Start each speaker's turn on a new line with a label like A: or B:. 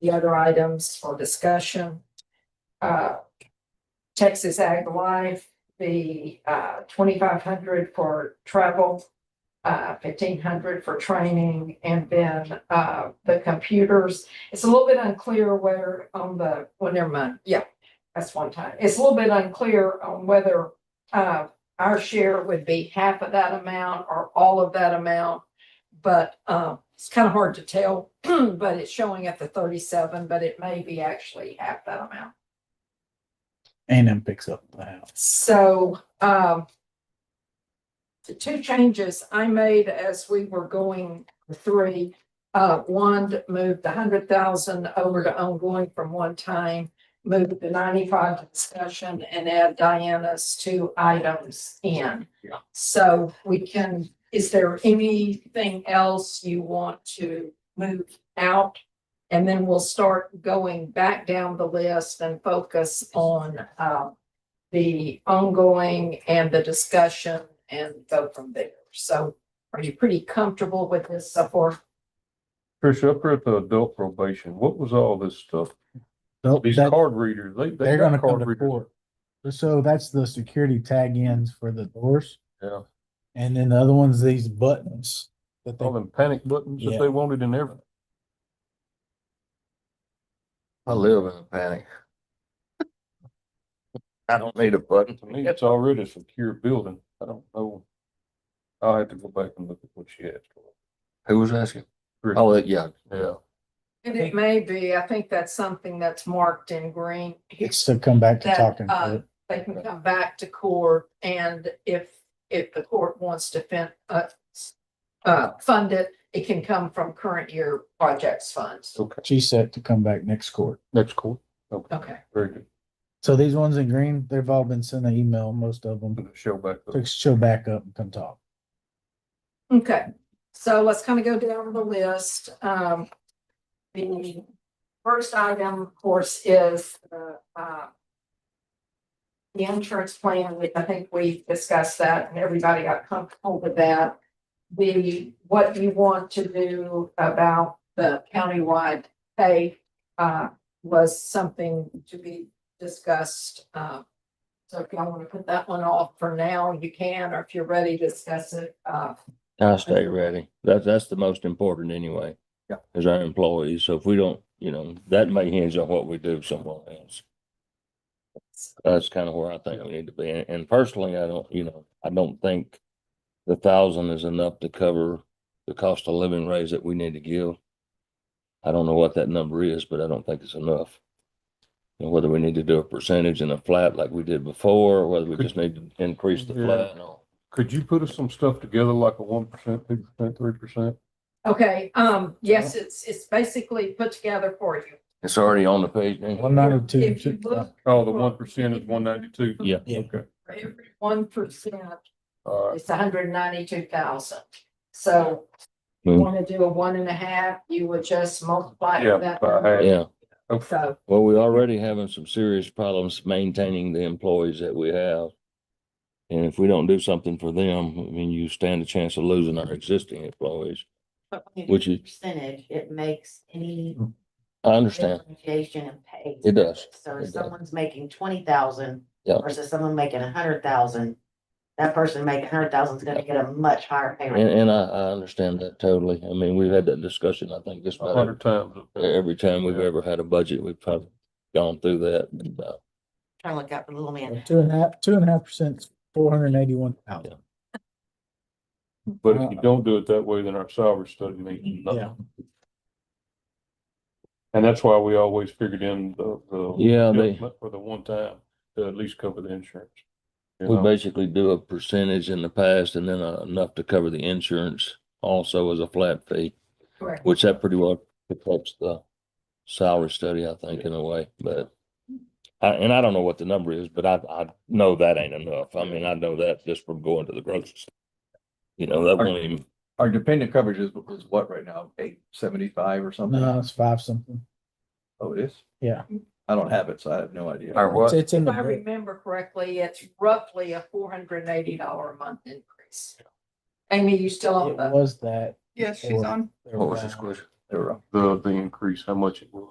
A: the other items for discussion. Uh, Texas Ag Life, the uh twenty-five hundred for travel, uh fifteen hundred for training, and then uh the computers. It's a little bit unclear where on the, well, never mind, yeah, that's one time. It's a little bit unclear on whether uh our share would be half of that amount or all of that amount. But um, it's kind of hard to tell, but it's showing at the thirty-seven, but it may be actually half that amount.
B: And M picks up the house.
A: So, um, the two changes I made as we were going three, uh, one to move the hundred thousand over to ongoing from one time, move the ninety-five to discussion and add Diana's two items in.
B: Yeah.
A: So we can, is there anything else you want to move out? And then we'll start going back down the list and focus on, um, the ongoing and the discussion and go from there. So are you pretty comfortable with this so far?
C: Chris, up here at the adult probation, what was all this stuff?
B: So
C: These
B: that-
C: card readers, they. they
B: they're
C: got
B: gonna come
C: card
B: to
C: readers.
B: court. So that's the security tag ends for the doors.
C: Yeah,
B: And then the other one's these buttons that
C: all
B: they,
C: them panic buttons that
B: Yeah.
C: they wanted in everything.
D: I live in a panic. I don't need a button.
C: To me, it's already a secure building. I don't know. I'll have to go back and look at what she asked for.
D: Who was asking?
C: Chris,
D: Oh, yeah.
C: Yeah,
A: And it may be, I think that's something that's marked in green. here.
B: it's to come back to
A: That,
B: talking.
A: uh,
B: to it.
A: They can come back to court and if, if the court wants to fin, uh, s- uh, fund it, it can come from current year projects funds.
C: okay,
B: She said to come back next court.
C: next court. Okay,
A: Okay.
C: very good.
B: So these ones in green, they've all been sent an email, most of
C: I'm
B: them.
C: gonna show back. up.
B: So show back up and come talk.
A: Okay, so let's kind of go down the list. Um, the first item, of course, is, uh, uh, the insurance plan, which I think we discussed that and everybody got comfortable with that. The, what you want to do about the countywide pay, uh, was something to be discussed, uh, so if y'all want to put that one off for now, you can, or if you're ready to discuss it, uh,
D: I stay ready. That's, that's the most important anyway.
C: Yeah.
D: Is our employees. So if we don't, you know, that may hinge on what we do somewhere else. That's kind of where I think we need to be. And- And personally, I don't, you know, I don't think the thousand is enough to cover the cost of living raise that we need to give. I don't know what that number is, but I don't think it's enough. And whether we need to do a percentage in a flat like we did before, or whether we just need to increase the
C: Yeah.
D: flat and all.
C: Could you put us some stuff together like a one percent, two percent, three percent?
A: Okay, um, yes, it's, it's basically put together for you.
D: It's already on the page. ain't it?
B: One ninety-two.
A: If you look
C: Oh, the one percent is one ninety-two?
D: Yeah.
B: Yeah.
C: Okay,
A: for every one percent,
C: all right.
A: it's hundred and ninety-two thousand. So you
D: Hmm.
A: want to do a one and a half, you would just multiply
C: Yeah,
A: that.
C: by
A: number.
C: half.
D: Yeah,
C: Okay,
A: So,
D: well, we're already having some serious problems maintaining the employees that we have. And if we don't do something for them, I mean, you stand a chance of losing our existing employees,
E: But when you
D: which
E: do
D: is,
E: percentage, it makes any
D: I understand.
E: differentiation in pay.
D: It does.
E: So if
D: It does.
E: someone's making twenty thousand
D: Yeah.
E: versus someone making a hundred thousand, that person making a hundred thousand is gonna get a much higher pay
D: And,
E: rate.
D: and I, I understand that totally. I mean, we've had that discussion, I think, just
C: a
D: about every-
C: hundred times.
D: every time we've
C: Yeah.
D: ever had a budget, we've probably gone through that. And, uh,
E: Trying to look out for the little man.
B: Two and a half, two and a half percent, four hundred and eighty-one thousand.
D: Uh-huh.
C: But if you don't do it that way, then our salary study means
B: Yeah.
C: nothing. And that's why we always figured in the, the.
D: Yeah, they-
C: adjustment For the one time, to at least cover the insurance. You
D: We
C: know?
D: basically do a percentage in the past and then uh, enough to cover the insurance also as a flat fee.
A: correct.
D: Which that pretty well protects the salary study, I think, in a way, but. I, and I don't know what the number is, but I, I know that ain't enough. I mean, I know that just from going to the grocery. store. You know, that won't even,
F: Our dependent coverage is, is what right now, eight seventy-five or
B: No,
F: something?
B: it's five something.
F: Oh, it is?
B: Uh, Yeah.
F: I don't have it, so I have no idea.
D: Our
B: It's-
D: what?
B: It's in
A: If
B: the.
A: I
B: brick.
A: remember correctly, it's roughly a four hundred and eighty dollar a month increase. Amy, you still on
B: It
A: the,
B: was that. Yes, she's on.
D: what was this question?
F: There we go.
C: The, the increase, how much it was.